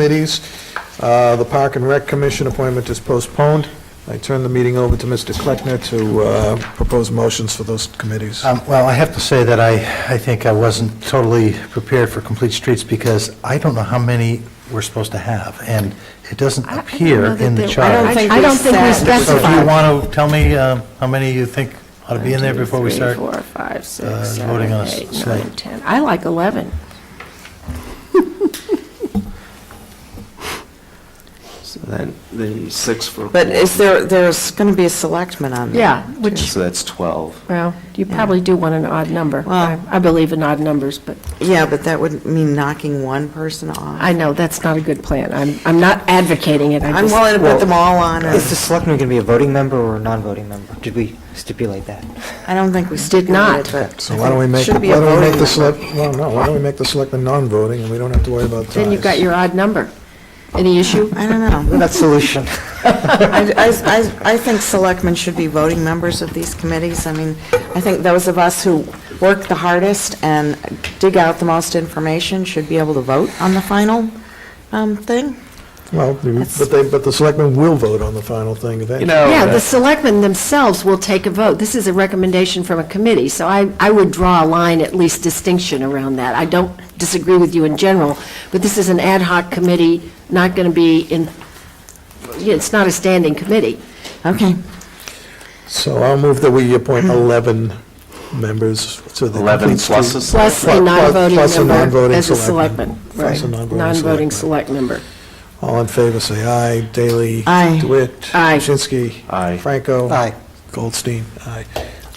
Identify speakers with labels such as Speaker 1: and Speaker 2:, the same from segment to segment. Speaker 1: committees. Uh, The Park and Rec Commission appointment is postponed. I turn the meeting over to Mr. Kleckner to uh, propose motions for those committees.
Speaker 2: Um, Well, I have to say that I, I think I wasn't totally prepared for Complete Streets because I don't know how many we're supposed to have, and it doesn't
Speaker 3: I- I don't
Speaker 2: appear
Speaker 3: know that
Speaker 2: in the
Speaker 3: there-
Speaker 2: chart.
Speaker 3: I don't think we said.
Speaker 2: So if you
Speaker 3: specified.
Speaker 2: want to tell me uh, how many you think ought to be in there
Speaker 3: One, two,
Speaker 2: before we
Speaker 3: three,
Speaker 2: start?
Speaker 3: four, five, six,
Speaker 2: uh,
Speaker 3: seven,
Speaker 2: voting on a
Speaker 3: eight,
Speaker 2: slate.
Speaker 3: nine, 10. I like 11.
Speaker 4: So then, the six for.
Speaker 5: But is there, there's going to be a selectman on there?
Speaker 3: Yeah,
Speaker 4: Yeah,
Speaker 3: which,
Speaker 4: So that's 12.
Speaker 3: well, you probably do want an odd number. I
Speaker 5: Well-
Speaker 3: I believe in odd numbers, but
Speaker 5: Yeah, but that would mean knocking one person off.
Speaker 3: I know that's not a good plan. I'm, I'm not advocating it. I
Speaker 5: I'm
Speaker 3: just-
Speaker 5: willing to put them all on. and-
Speaker 6: Is the selectman going to be a voting member or a non-voting member? Did we stipulate that?
Speaker 5: I don't think we
Speaker 3: Did
Speaker 5: stipulated,
Speaker 3: not.
Speaker 5: but.
Speaker 1: So why don't we make,
Speaker 5: Should
Speaker 1: why
Speaker 5: be a
Speaker 1: don't we make
Speaker 5: voting
Speaker 1: the select, well, no, why don't we make the selectmen non-voting, and we don't have to worry about ties?
Speaker 3: Then you've got your odd number. Any issue?
Speaker 5: I don't know.
Speaker 6: That solution.
Speaker 5: I, I- I, I think selectmen should be voting members of these committees. I mean, I think those of us who work the hardest and dig out the most information should be able to vote on the final um, thing.
Speaker 1: Well, but they, but the selectmen will vote on the final thing eventually.
Speaker 3: Yeah, the selectmen themselves will take a vote. This is a recommendation from a committee, so I, I would draw a line, at least distinction around that. I don't disagree with you in general, but this is an ad hoc committee, not going to be in, yeah, it's not a standing committee.
Speaker 5: Okay.
Speaker 1: So I'll move that we appoint 11 members to the.
Speaker 4: 11
Speaker 1: Complete Street-
Speaker 3: Plus
Speaker 4: pluses.
Speaker 1: Plus-
Speaker 3: a non-voting
Speaker 1: plus a
Speaker 3: member
Speaker 1: non-voting
Speaker 3: as a
Speaker 1: selectman.
Speaker 3: selectman.
Speaker 1: Plus a
Speaker 3: Right.
Speaker 1: non-voting selectman.
Speaker 3: Non-voting select member.
Speaker 1: All in favor, say aye. Daley.
Speaker 5: Aye.
Speaker 1: DeWitt.
Speaker 3: Aye.
Speaker 1: Kuczynski.
Speaker 4: Aye.
Speaker 1: Franco.
Speaker 6: Aye.
Speaker 1: Goldstein. Aye.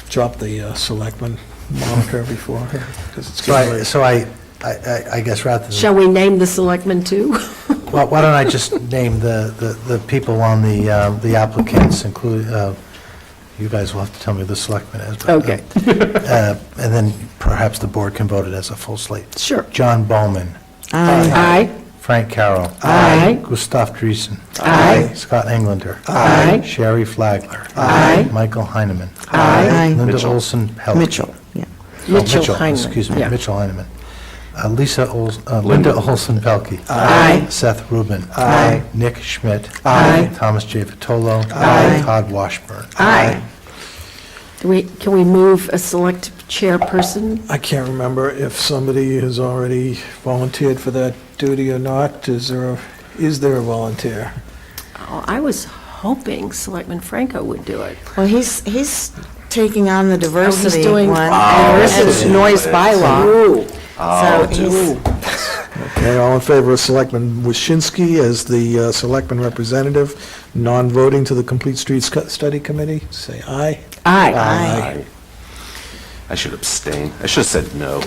Speaker 1: Drop the uh, selectman moniker before her, because it's
Speaker 2: So
Speaker 1: getting
Speaker 2: I,
Speaker 1: late.
Speaker 2: so I, I- I I guess rather than,
Speaker 3: Shall we name the selectmen too?
Speaker 2: Well, why don't I just name the, the the people on the uh, the applicants, including, you guys will have to tell me who the selectmen is. but, uh,
Speaker 3: Okay.
Speaker 2: uh, And then perhaps the board can vote it as a full slate.
Speaker 3: Sure.
Speaker 2: John Bowman.
Speaker 3: Aye.
Speaker 2: Frank Carroll.
Speaker 3: Aye.
Speaker 2: Gustav Driesen.
Speaker 3: Aye.
Speaker 2: Scott Englander.
Speaker 3: Aye.
Speaker 2: Sherry Flagler.
Speaker 3: Aye.
Speaker 2: Michael Heineman.
Speaker 5: Aye.
Speaker 2: Linda
Speaker 4: Mitchell.
Speaker 2: Olson Pelkey.
Speaker 5: Mitchell, yeah.
Speaker 2: Oh,
Speaker 3: Mitchell Heineman,
Speaker 2: Excuse me,
Speaker 3: yeah.
Speaker 2: Mitchell Heineman. Uh, Lisa, Ols- uh, Linda Olson Pelkey.
Speaker 3: Aye.
Speaker 2: Seth Rubin.
Speaker 6: Aye.
Speaker 2: Nick Schmidt.
Speaker 3: Aye.
Speaker 2: Thomas J. Vitolo.
Speaker 5: Aye.
Speaker 2: Todd Washburn.
Speaker 3: Aye. Do we, can we move a select chairperson?
Speaker 1: I can't remember if somebody has already volunteered for that duty or not. Is there, a- is there a volunteer?
Speaker 3: Oh, I was hoping Selectman Franco would do it.
Speaker 5: Well, he's, he's taking on the diversity
Speaker 3: Oh, doing- Oh,
Speaker 5: one. Oh, and This is noise bylaw. So he's,
Speaker 1: Okay, all in favor of Selectman Waschinsky as the uh, selectman representative, non-voting to the Complete Streets Cu- Study Committee? Say aye.
Speaker 3: Aye.
Speaker 5: aye.
Speaker 4: I should abstain. I should have said no.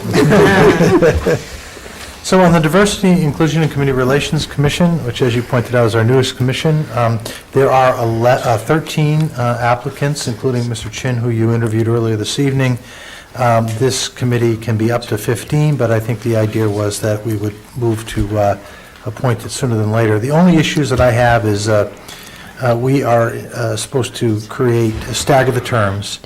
Speaker 2: So on the Diversity, Inclusion, and Community Relations Commission, which as you pointed out is our newest commission, um, there are ele- uh, 13 uh, applicants, including Mr. Chin, who you interviewed earlier this evening. Um, This committee can be up to 15, but I think the idea was that we would move to uh, appoint it sooner than later. The only issues that I have is uh, uh, we are uh, supposed to create, stagger the terms.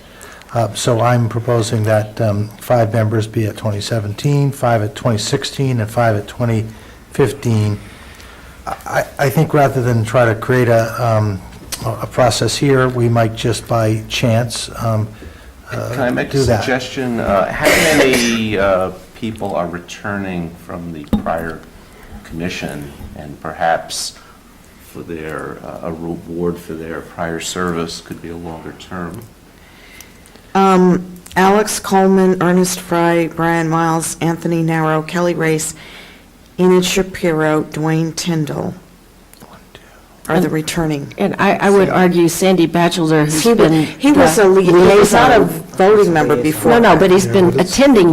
Speaker 2: Uh, So I'm proposing that um, five members be at 2017, five at 2016, and five at 2015. I I think rather than try to create a um, a a process here, we might just by chance um,
Speaker 4: Can I make
Speaker 2: do
Speaker 4: a
Speaker 2: that.
Speaker 4: suggestion? Uh, How many uh, people are returning from the prior commission? And perhaps for their, uh, a reward for their prior service could be a longer term.
Speaker 5: Um, Alex Coleman, Ernest Fry, Brian Miles, Anthony Narrow, Kelly Race, Enid Shapiro, Dwayne Tyndall are the returning.
Speaker 3: And I, I would argue Sandy Batchelder, who's
Speaker 5: He
Speaker 3: been.
Speaker 5: was, he was a,
Speaker 3: the
Speaker 5: lia- he was not a voting member before.
Speaker 3: uh, No, no, but he's
Speaker 1: Yeah,
Speaker 3: been
Speaker 1: but it's-
Speaker 3: attending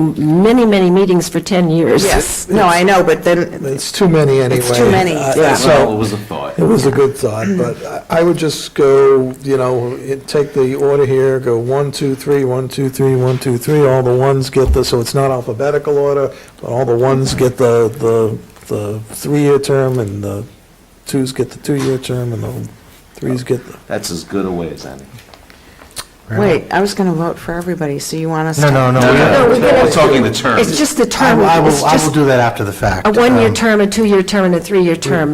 Speaker 3: many, many meetings for 10 years.
Speaker 5: Yes, no, I know, but then,
Speaker 1: It's too many anyway.
Speaker 5: It's too many,
Speaker 1: Uh,
Speaker 5: yeah.
Speaker 1: So,
Speaker 4: Well, it was a thought.
Speaker 1: It was a good thought, but I- I would just go, you know, it- take the order here, go one, two, three, one, two, three, one, two, three, all the ones get the, so it's not alphabetical order, but all the ones get the, the, the three-year term, and the twos get the two-year term, and the threes get the,
Speaker 4: That's as good a way as any.
Speaker 5: Wait, I was going to vote for everybody, so you want us to?
Speaker 2: No, no, no.
Speaker 4: No,
Speaker 2: we-
Speaker 4: no,
Speaker 3: we're gonna-
Speaker 4: We're talking the terms.
Speaker 3: It's just the
Speaker 2: I
Speaker 3: term.
Speaker 2: will- I
Speaker 3: it's
Speaker 2: will, I will
Speaker 3: just
Speaker 2: do that after the fact.
Speaker 3: A one-year
Speaker 2: Um,
Speaker 3: term, a two-year term, and a three-year term.